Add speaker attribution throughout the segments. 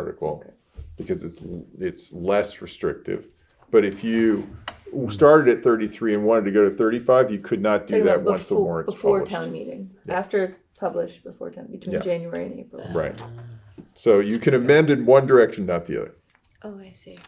Speaker 1: article because it's it's less restrictive. But if you started at 33 and wanted to go to 35, you could not do
Speaker 2: Talking
Speaker 1: that
Speaker 2: about
Speaker 1: once the
Speaker 2: befo-
Speaker 1: warrant's
Speaker 2: Before
Speaker 1: published.
Speaker 2: town meeting, after it's published, before town, between
Speaker 1: Yeah.
Speaker 2: January and April.
Speaker 1: Right. So you can amend in one direction, not the other.
Speaker 2: Oh, I see.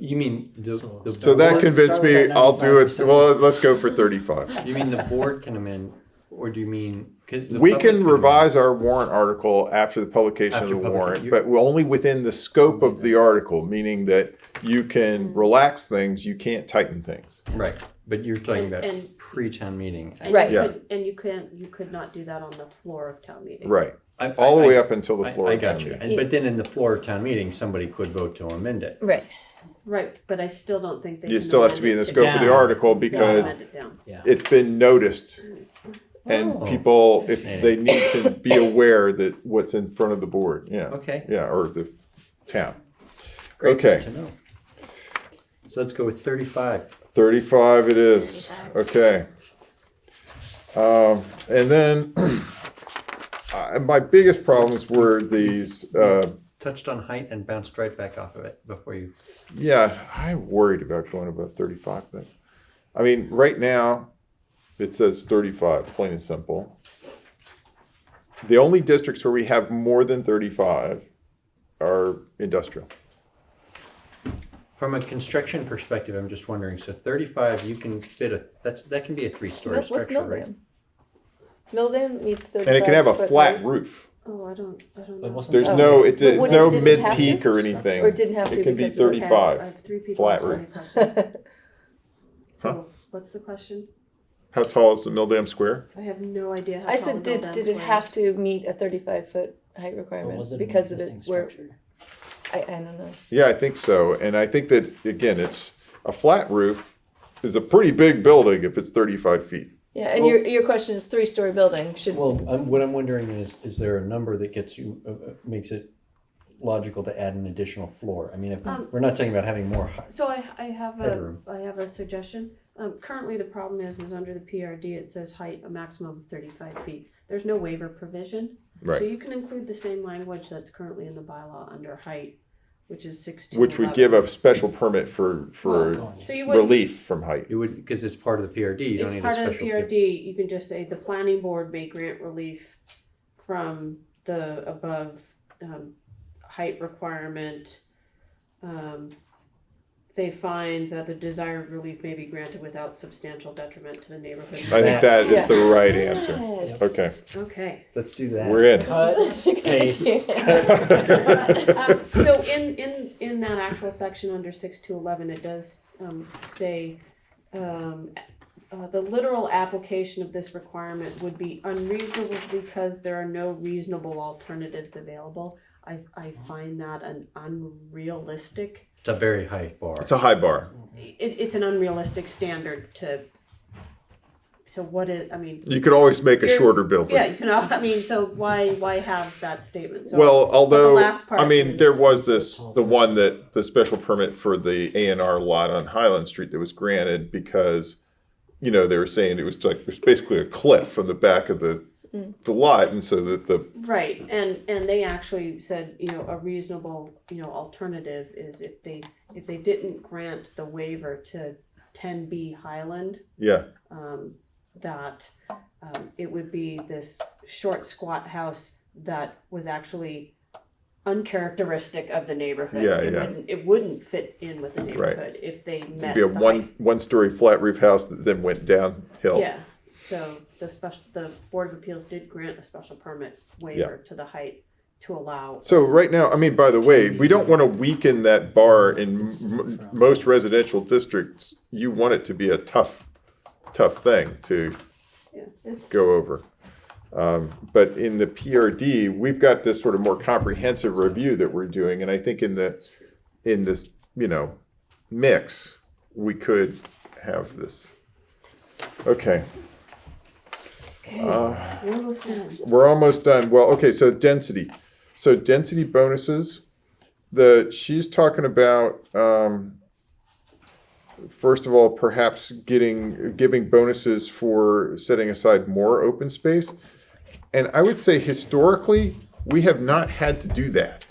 Speaker 3: You mean the, the
Speaker 1: So that
Speaker 3: board-
Speaker 1: convinced
Speaker 4: start with
Speaker 1: me
Speaker 4: that
Speaker 1: I'll do it.
Speaker 4: 95%.
Speaker 1: Well, let's go for 35.
Speaker 3: You mean the board can amend, or do you mean? 'cause the
Speaker 1: We
Speaker 3: public
Speaker 1: can revise our warrant article after the publication of the
Speaker 3: After publica-
Speaker 1: warrant,
Speaker 3: you-
Speaker 1: but we're only within the scope of the article, meaning that you can
Speaker 2: Mm.
Speaker 1: relax things, you can't tighten things.
Speaker 3: amend. Right, but you're talking
Speaker 5: And,
Speaker 3: about
Speaker 5: and,
Speaker 3: pre-town meeting.
Speaker 5: and
Speaker 2: Right.
Speaker 5: you
Speaker 1: Yeah.
Speaker 5: could, and you can't, you could not do that on the floor of town meeting.
Speaker 1: Right.
Speaker 3: I-
Speaker 1: All
Speaker 3: I-
Speaker 1: the way
Speaker 3: I-
Speaker 1: up until the
Speaker 3: I-
Speaker 1: floor
Speaker 3: I
Speaker 1: of town
Speaker 3: got you,
Speaker 1: meeting.
Speaker 3: And- but then in the floor of town meeting, somebody could vote to amend it.
Speaker 2: Right.
Speaker 5: Right, but I still don't think they.
Speaker 1: You
Speaker 5: can
Speaker 1: still have to
Speaker 5: amend
Speaker 1: be
Speaker 5: it
Speaker 1: in the scope of the
Speaker 4: down.
Speaker 1: article because
Speaker 5: Amend it down.
Speaker 1: it's been noticed. And
Speaker 3: Oh.
Speaker 1: people, if
Speaker 3: Fascinating.
Speaker 1: they need to be aware that what's in front of the board, yeah.
Speaker 3: Okay.
Speaker 1: Yeah, or the town.
Speaker 3: Great
Speaker 1: Okay.
Speaker 3: to know. So let's go with thirty-five.
Speaker 1: Thirty-five it is, okay. Um, and then, I my biggest problems were these, uh,
Speaker 3: Touched on height and bounced right back off of it before you.
Speaker 1: yeah, I'm worried about going above thirty-five, but, I mean, right now, it says thirty-five, plain and simple. The only districts where we have more than thirty-five are industrial.
Speaker 3: From a construction perspective, I'm just wondering. So thirty-five, you can fit a that's that can be a three-story
Speaker 2: Mil- What's
Speaker 3: structure, right?
Speaker 2: Milldam? Milldam meets thirty-five.
Speaker 1: And it can have a
Speaker 2: foot
Speaker 1: flat
Speaker 2: height,
Speaker 1: roof.
Speaker 5: Oh, I don't, I don't know.
Speaker 4: But wasn't
Speaker 1: There's
Speaker 4: that-
Speaker 1: no, it's,
Speaker 2: Oh. But
Speaker 1: it's
Speaker 2: wouldn't-
Speaker 1: no
Speaker 2: didn't it have
Speaker 1: mid-peak
Speaker 2: to?
Speaker 1: or anything.
Speaker 2: Or didn't have to
Speaker 1: It can be
Speaker 2: because of the-
Speaker 1: thirty-five.
Speaker 5: I have three people
Speaker 1: Flat
Speaker 5: asking
Speaker 1: roof.
Speaker 5: a question. So, what's the question?
Speaker 1: How tall is the Milldam Square?
Speaker 5: I have no idea how
Speaker 2: I
Speaker 5: tall
Speaker 2: said,
Speaker 5: the
Speaker 2: did,
Speaker 5: Milldam
Speaker 2: did it
Speaker 5: Square
Speaker 2: have
Speaker 5: is.
Speaker 2: to meet a thirty-five foot height
Speaker 4: Or
Speaker 2: requirement
Speaker 4: was it an
Speaker 2: because of
Speaker 4: existing
Speaker 2: its where,
Speaker 4: structure?
Speaker 2: I, I don't know.
Speaker 1: Yeah, I think so. And I think that, again, it's, a flat roof is a pretty big building if it's thirty-five feet.
Speaker 2: Yeah, and
Speaker 3: Well-
Speaker 2: your, your question is three-story building should,
Speaker 3: Well, I'm, what I'm wondering is, is there a number that gets you, uh, uh, makes it logical to add an additional floor? I mean, if,
Speaker 5: Um,
Speaker 3: we're not talking about having more height.
Speaker 5: So I, I have a,
Speaker 3: Bedroom.
Speaker 5: I have a suggestion. Um, currently, the problem is, is under the PRD, it says height a maximum of thirty-five feet. There's no waiver provision. So
Speaker 1: Right.
Speaker 5: you can include the same language that's currently in the bylaw under height, which is six to
Speaker 1: Which would
Speaker 5: 11.
Speaker 1: give a special permit for, for
Speaker 5: So you would,
Speaker 1: relief from height.
Speaker 3: It would, because it's part of the PRD, you don't
Speaker 5: it's
Speaker 3: need a
Speaker 5: part of the
Speaker 3: special. PRD.
Speaker 5: PRD, you can just say the planning board may grant relief from the above, um, height requirement. Um, they find that the desired relief may be granted without substantial detriment to the neighborhood.
Speaker 1: I think that is the right answer.
Speaker 5: Yes.
Speaker 1: Okay,
Speaker 5: Okay.
Speaker 3: Let's do that.
Speaker 1: we're in.
Speaker 4: Cut, paste.
Speaker 5: Um, so in, in, in that actual section under six to eleven, it does, um, say, um, uh, the literal application of this requirement would be unreasonable because there are no reasonable alternatives available. I, I find that an unrealistic,
Speaker 3: It's a very high bar.
Speaker 1: It's a high bar.
Speaker 5: it, it's an unrealistic standard to, so what is, I mean,
Speaker 1: You could always make a
Speaker 5: You're-
Speaker 1: shorter
Speaker 5: yeah,
Speaker 1: building.
Speaker 5: you know, I mean, so why, why have that statement? So-
Speaker 1: Well, although,
Speaker 5: last part
Speaker 1: I mean,
Speaker 5: is-
Speaker 1: there was this, the one that, the special permit for the A and R lot on Highland Street that was granted because, you know, they were saying it was like, it was basically a cliff on the back of the,
Speaker 5: Mm.
Speaker 1: the lot, and so that the
Speaker 5: Right, and and they actually said, you know, a reasonable, you know, alternative is if they if they didn't grant the waiver to ten B Highland,
Speaker 1: Yeah,
Speaker 5: um, that um, it would be this short squat house that was actually uncharacteristic of the neighborhood.
Speaker 1: Yeah,
Speaker 5: It
Speaker 1: yeah.
Speaker 5: wouldn't, it wouldn't fit in with the neighborhood if they
Speaker 1: it'd
Speaker 5: met.
Speaker 1: be a
Speaker 5: the
Speaker 1: one
Speaker 5: height.
Speaker 1: one story flat roof house that then went downhill.
Speaker 5: Yeah, so the special, the Board of Appeals did grant a special permit waiver to the height to allow
Speaker 1: So right now, I mean, by the way, we don't want to weaken that bar in m- most residential districts. You want it to be a tough, tough thing to
Speaker 5: Yeah, it's-
Speaker 1: go over. Um, but in the PRD, we've got this sort of more comprehensive review that we're doing, and I think in the in this you know mix, we could have this. Okay. Uh,
Speaker 5: We're almost done.
Speaker 1: we're almost done. Well, okay, so density. So density bonuses. The she's talking about um, first of all, perhaps getting giving bonuses for setting aside more open space. And I would say historically, we have not had to do that.